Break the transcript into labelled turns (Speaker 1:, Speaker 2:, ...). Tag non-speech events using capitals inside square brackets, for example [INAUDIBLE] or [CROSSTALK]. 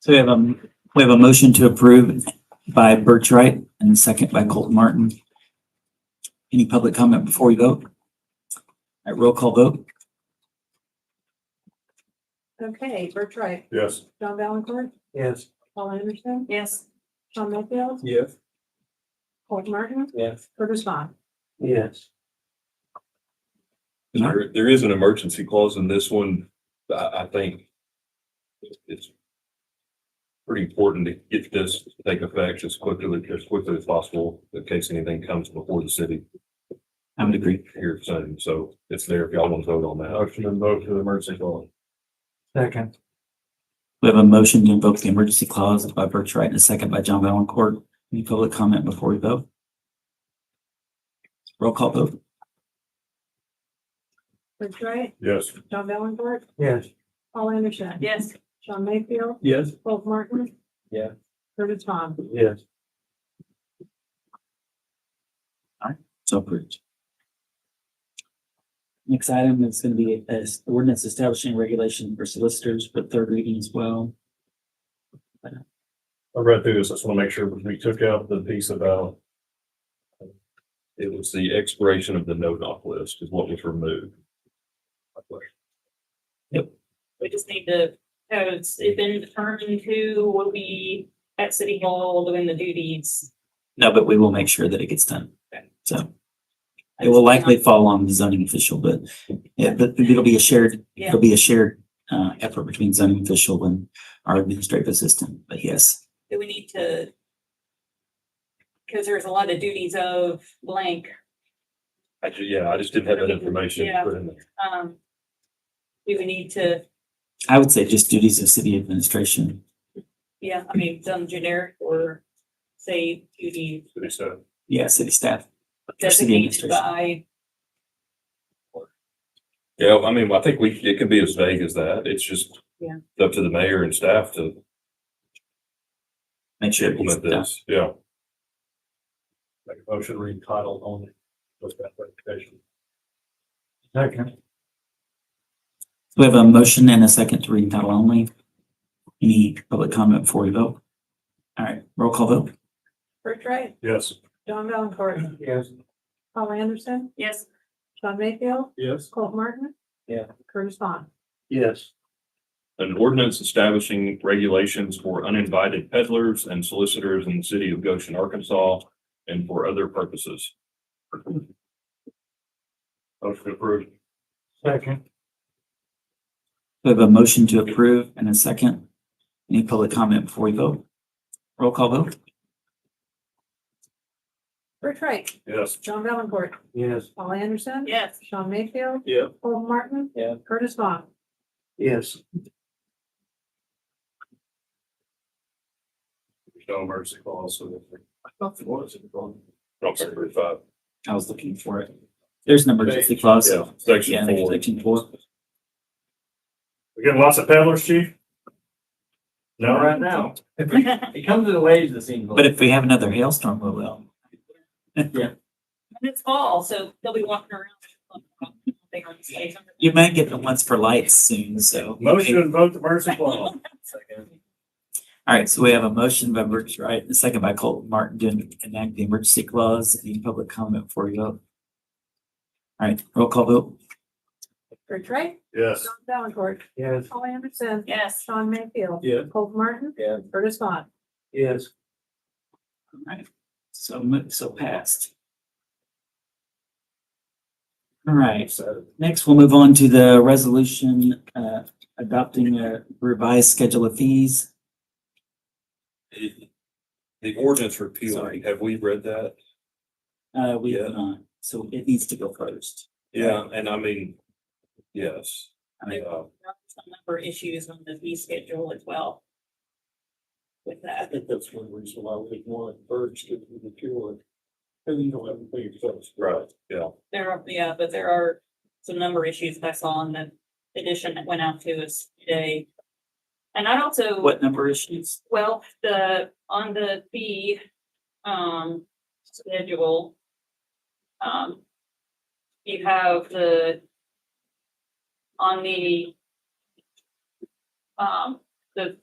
Speaker 1: So we have a, we have a motion to approve by Bertrite and a second by Colton Martin. Any public comment before we vote? All right, roll call vote?
Speaker 2: Okay, Bert Wright,
Speaker 3: Yes.
Speaker 2: John Valencourt,
Speaker 4: Yes.
Speaker 2: Paul Anderson,
Speaker 5: Yes.
Speaker 2: Sean Mayfield,
Speaker 4: Yes.
Speaker 2: Colton Martin,
Speaker 4: Yes.
Speaker 2: Curtis Vaughn.
Speaker 4: Yes.
Speaker 3: There, there is an emergency clause in this one, but I, I think it's pretty important to get this to take effect as quickly, as quickly as possible in case anything comes before the city
Speaker 1: I would agree.
Speaker 3: here soon. So it's there if y'all want to vote on that. Motion and vote for the emergency clause.
Speaker 4: Second.
Speaker 1: We have a motion to invoke the emergency clause by Bertrite and a second by John Valencourt. Any public comment before we vote? Roll call vote?
Speaker 2: Bert Wright,
Speaker 3: Yes.
Speaker 2: John Valencourt,
Speaker 4: Yes.
Speaker 2: Paul Anderson.
Speaker 5: Yes.
Speaker 2: Sean Mayfield,
Speaker 4: Yes.
Speaker 2: Colton Martin.
Speaker 4: Yeah.
Speaker 2: Curtis Vaughn.
Speaker 4: Yes.
Speaker 1: So approved. Next item is going to be uh, ordinance establishing regulation for solicitors for third reading as well.
Speaker 3: I read through this. I just want to make sure we took out the piece about it was the expiration of the no-knock list is what was removed.
Speaker 5: We just need to, uh, it's it's been determined who will be at City Hall doing the duties.
Speaker 1: No, but we will make sure that it gets done. So it will likely fall on the zoning official, but yeah, but it'll be a shared, it'll be a shared uh, effort between zoning official and our administrative assistant. But yes,
Speaker 5: Do we need to? Because there's a lot of duties of blank,
Speaker 3: I ju- yeah, I just didn't have that information
Speaker 5: Yeah.
Speaker 3: put in there.
Speaker 5: um. Do we need to,
Speaker 1: I would say just duties of city administration.
Speaker 5: yeah, I mean, some generic or say duty
Speaker 3: City staff.
Speaker 1: Yeah, city staff. or city
Speaker 5: designated
Speaker 1: administration.
Speaker 5: by,
Speaker 3: Yeah, I mean, I think we, it can be as vague as that. It's just
Speaker 5: Yeah.
Speaker 3: up to the mayor and staff to
Speaker 1: Make sure it gets
Speaker 3: implement
Speaker 1: done.
Speaker 3: this, yeah. Make a motion read title only, with that clarification.
Speaker 4: Second.
Speaker 1: We have a motion and a second to read in title only. Any public comment before we vote? All right, roll call vote.
Speaker 2: Bert Wright,
Speaker 3: Yes.
Speaker 2: John Valencourt,
Speaker 4: Yes.
Speaker 2: Paul Anderson,
Speaker 5: yes,
Speaker 2: Sean Mayfield,
Speaker 3: Yes.
Speaker 2: Colton Martin.
Speaker 4: Yeah.
Speaker 2: Curtis Vaughn.
Speaker 4: Yes.
Speaker 3: An ordinance establishing regulations for uninvited peddlers and solicitors in the city of Goshen, Arkansas, and for other purposes. Motion approved.
Speaker 4: Second.
Speaker 1: We have a motion to approve and a second. Any public comment before we vote? Roll call vote?
Speaker 2: Bert Wright,
Speaker 3: Yes.
Speaker 2: John Valencourt,
Speaker 4: Yes.
Speaker 2: Paul Anderson.
Speaker 5: yes. [LAUGHS]
Speaker 2: Sean Mayfield,
Speaker 3: Yeah.
Speaker 2: Colton Martin.
Speaker 4: Yeah.
Speaker 2: Curtis Vaughn.
Speaker 4: Yes.
Speaker 3: There's no emergency clause, so. I thought there was. Section thirty-five.
Speaker 1: I was looking for it. There's an emergency clause.
Speaker 3: Yeah, section
Speaker 1: Yeah,
Speaker 3: four.
Speaker 1: section four.
Speaker 3: We getting lots of peddlers, chief? No, right now.
Speaker 4: It comes in waves, it seems.
Speaker 1: But if we have another hailstorm, we will.
Speaker 5: And it's fall, so they'll be walking around. They are safe.
Speaker 1: You may get the ones for lights soon, so.
Speaker 3: vote the mercy clause.
Speaker 1: All right, so we have a motion by Burgess Wright, and a second by Colton Martin to enact the emergency clause. Any public comment before we vote? All right, roll call vote?
Speaker 2: Bert Wright,
Speaker 3: Yes.
Speaker 2: John Valencourt,
Speaker 4: Yes.
Speaker 2: Paul Anderson.
Speaker 5: [LAUGHS] Yes,
Speaker 2: Sean Mayfield.
Speaker 4: Yeah.
Speaker 2: Colton Martin.
Speaker 4: Yeah.
Speaker 2: Curtis Vaughn.
Speaker 4: Yes.
Speaker 1: All right, so mo- so passed. All right,
Speaker 4: So.
Speaker 1: Next, we'll move on to the resolution uh, adopting a revised schedule of fees.
Speaker 3: The ordinance
Speaker 1: Sorry.
Speaker 3: repealing, have we read that?
Speaker 1: Uh, We have
Speaker 3: Yeah.
Speaker 1: not, so it needs to go first.
Speaker 3: Yeah, and I mean, yes.
Speaker 1: I mean-
Speaker 3: Yeah.
Speaker 5: some number of issues on the fee schedule as well. With
Speaker 6: I
Speaker 5: that,
Speaker 6: think that's one reason why we want birds to be cured. Cause you don't have to pay yourself.
Speaker 3: Right, yeah.
Speaker 5: there are, yeah, but there are some number of issues that I saw in the edition that went out to us today. And I'd also,
Speaker 1: What number issues?
Speaker 5: well, the, on the fee, um, schedule. Um, you have the, on the, um, the